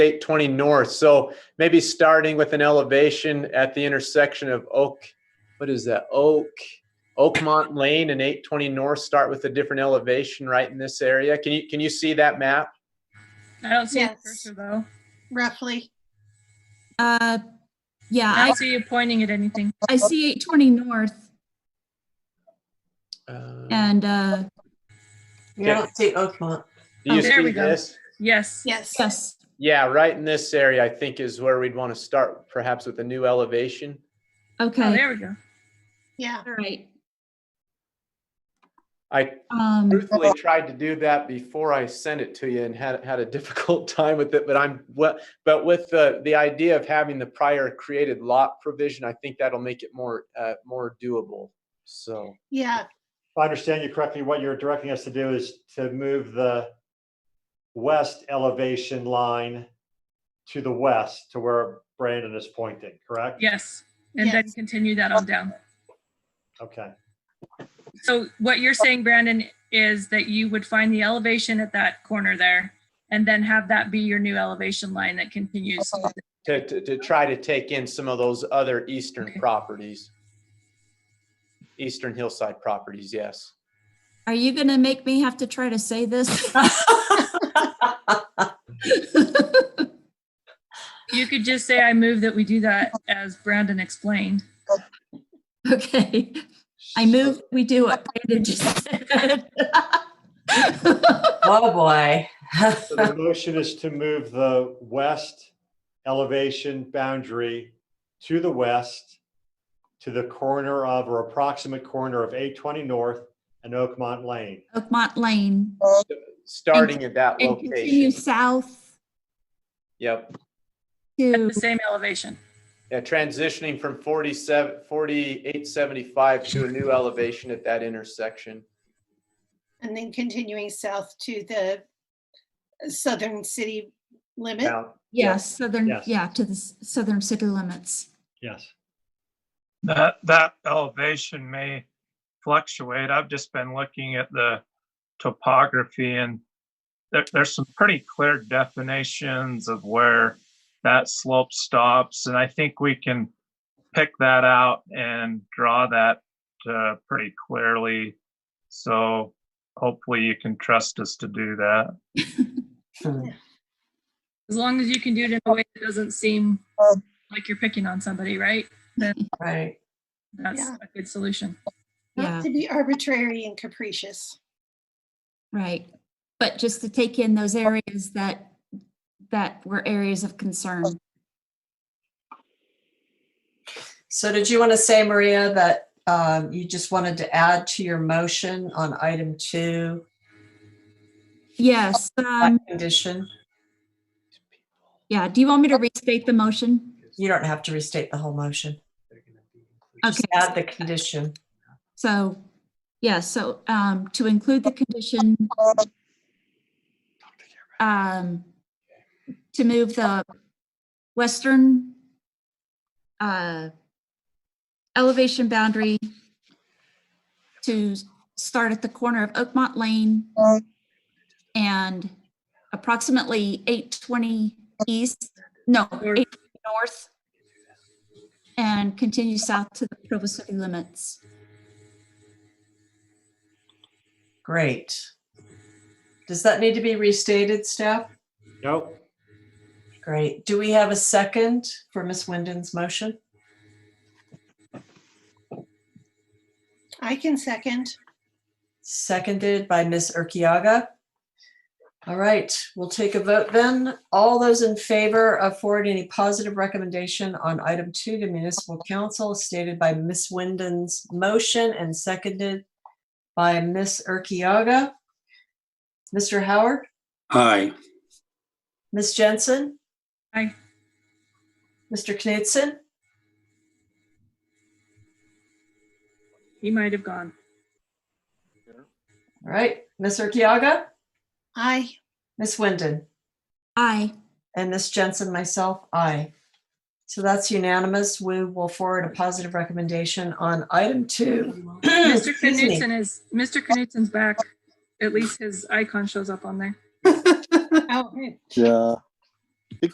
State 20 North. So maybe starting with an elevation at the intersection of Oak, what is that? Oak, Oakmont Lane and 820 North. Start with a different elevation right in this area. Can you, can you see that map? I don't see the Yes. cursor though. roughly. Uh, yeah, I I, don't see you pointing at anything. I see eight twenty north Uh, and, uh, You don't see Oakmont. Do you Oh, there see we go. this? Yes. Yes. yes, Yeah, right in this area, I think is where we'd want to start, perhaps with a new elevation. Oh, okay, there we go. Yeah. all right. I Um, truthfully tried to do that before I sent it to you and had, had a difficult time with it, but I'm, well, but with the, the idea of having the prior created lot provision, I think that'll make it more, uh, more doable. So, Yeah. If I understand you correctly, what you're directing us to do is to move the west elevation line to the west to where Brandon is pointing, correct? Yes. And then Yes. continue that on down. Okay, So what you're saying, Brandon, is that you would find the elevation at that corner there and then have that be your new elevation line that continues. to, to, to try to take in some of those other eastern Okay. properties. Eastern hillside properties, yes. are you gonna make me have to try to say this? You could just say, I move that we do that as Brandon explained. Okay, I move, we do what Brandon just said. Oh, boy. so the motion is to move the west elevation boundary to the west to the corner of or approximate corner of 820 North and Oakmont Lane. Oakmont Lane Starting at that and continue location. south Yep. At to, the same elevation. Yeah, transitioning from 47, 4875 to a new elevation at that intersection. And then continuing south to the southern city limit. Now, yes, southern, Yes. yeah, to the s- southern city limits. Yes. That, that elevation may fluctuate. I've just been looking at the topography and there, there's some pretty clear definitions of where that slope stops. And I think we can pick that out and draw that uh, pretty clearly. So hopefully you can trust us to do that. As long as you can do it in a way that doesn't seem like you're picking on somebody, right? Right. That's Yeah. a good solution. Yeah, Not to be arbitrary and capricious. right. But just to take in those areas that, that were areas of concern. So did you want to say, Maria, that um, you just wanted to add to your motion on item two, Yes, that um, condition? yeah, do you want me to restate the motion? You don't have to restate the whole motion. Just add the Okay, condition. so, yeah, so, um, to include the condition, um, to move the western, uh, elevation boundary to start at the corner of Oakmont Lane and approximately eight twenty east, no, North. eight north and continue south to the Provo city limits. Great. Does that need to be restated, staff? Nope. Great. Do we have a second for Miss Wyndon's motion? I can second. Seconded by Ms. Urquiaga. All right, we'll take a vote then. All those in favor of forwarding any positive recommendation on item two to municipal council stated by Ms. Wyndon's motion and seconded by Ms. Urquiaga. Mr. Howard, Aye. Ms. Jensen? Aye. Mr. Knudsen? He might have gone. All right, Ms. Urquiaga, I, Ms. Wyndon? Aye. And Ms. Jensen, myself, aye. So that's unanimous. We will forward a positive recommendation on item two. Mr. Excuse me. Knutson is, Mr. Knutsen's back. At least his icon shows up on there. oh, Yeah.